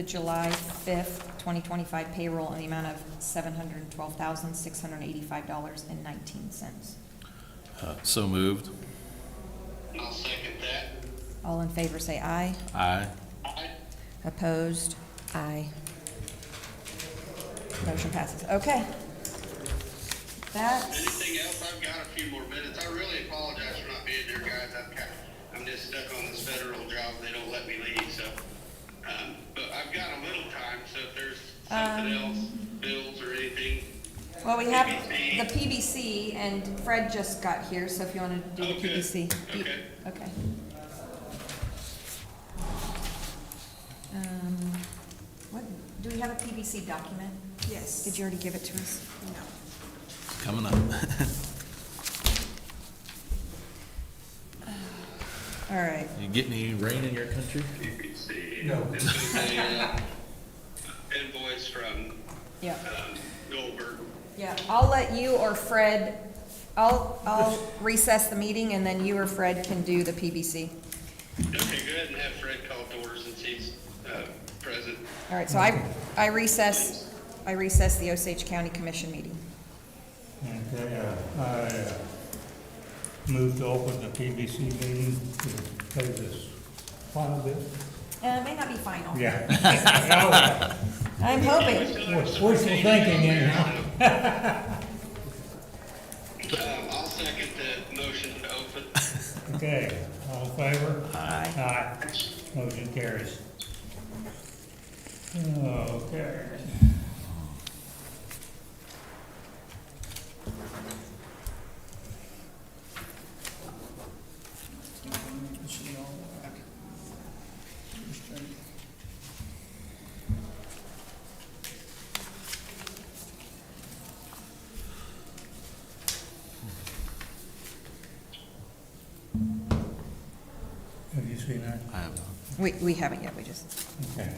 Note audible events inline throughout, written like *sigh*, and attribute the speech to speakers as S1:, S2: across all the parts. S1: The July 5th, 2025 payroll in the amount of $712,685.19.
S2: Uh, So moved.
S3: I'll second that.
S1: All in favor, say aye.
S2: Aye.
S3: Aye.
S1: Opposed? Aye. Motion passes. Okay. That,
S3: Anything else? I've got a few more minutes. I really apologize for not being there, guys. I'm kind of, I'm just stuck on this federal job. They don't let me leave, so. Um, but I've got a little time, so if there's something else, bills or anything.
S1: well, we have the PBC, and Fred just got here, so if you want to do the
S3: Okay.
S1: PBC. you-
S3: Okay.
S1: Okay. Um, What, do we have a PBC document?
S4: Yes.
S1: Did you already give it to us?
S4: No.
S2: Coming up.
S1: All right.
S2: You get any rain in your country?
S3: PPC. No. uh, Invoice from,
S1: Yeah.
S3: um, Goldberg.
S1: Yeah, I'll let you or Fred, I'll, I'll recess the meeting and then you or Fred can do the PBC.
S3: Okay, go ahead and have Fred call doors since he's, uh, present.
S1: All right, so I,
S3: Mm-hmm.
S1: I recess, I recess the Osage County Commission meeting.
S5: Okay, uh, I uh, move to open the PBC meeting to pay this final bit.
S1: Uh, it may not be final.
S5: Yeah. *laughs* Now,
S1: I'm hoping.
S5: What's wishful thinking here, *laughs* huh?
S3: Um, I'll second the motion to open.
S5: Okay, all in favor? Aye. Motion carries. Okay. Have you seen that?
S2: I have not.
S1: We, we haven't yet, we just,
S5: Okay.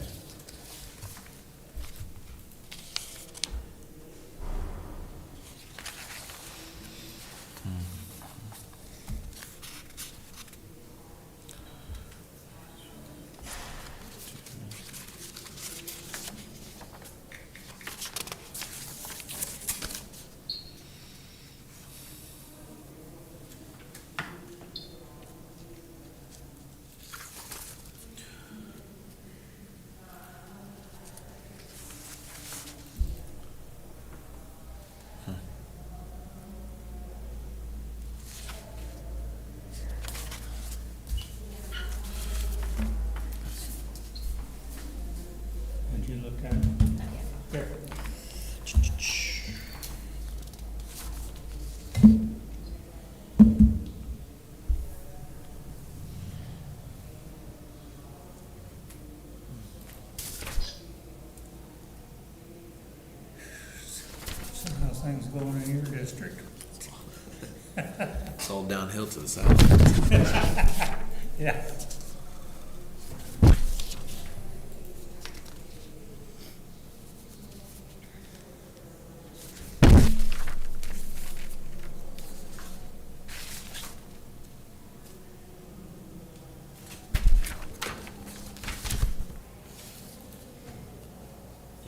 S5: Did you look at it?
S1: not yet.
S5: There. Somehow things going in your district.
S2: It's all downhill to the south.
S5: Yeah.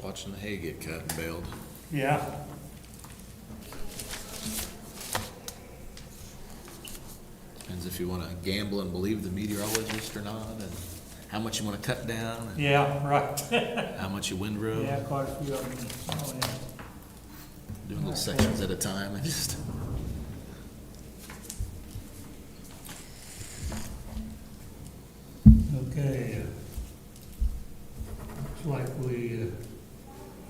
S2: Watching the hay get cut and baled.
S5: Yeah.
S2: Depends if you want to gamble and believe the meteorologist or not, and how much you want to cut down,
S5: Yeah, right.
S2: and how much you windrow.
S5: *laughs* Yeah, quite a few of them. Oh, yeah.
S2: Doing little sections at a time and just.
S5: Okay. uh, Looks like we,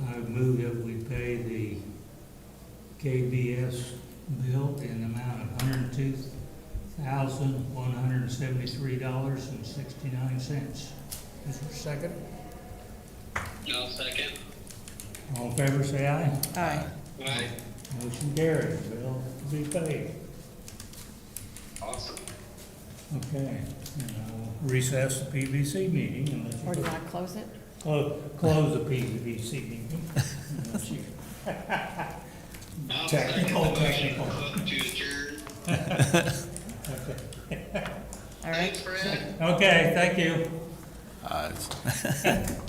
S5: uh, I move that we pay the KBS bill in the amount of hundred and two thousand, one hundred and seventy-three dollars and sixty-nine cents. Is there a second?
S3: I'll second.
S5: All in favor, say aye.
S1: Aye.
S3: Aye.
S5: Motion carries, bill to be paid.
S3: Awesome.
S5: Okay, and I'll recess the PVC meeting unless you.
S1: Or do you want to close it?
S5: Close, close the PVC *laughs* meeting. unless you-
S3: I'll second the
S5: Technical,
S3: motion
S5: technical.
S3: to adjourn.
S5: Okay.
S1: All right.
S3: Thanks, Fred.
S2: uh,
S5: Okay, thank you.
S2: Aye.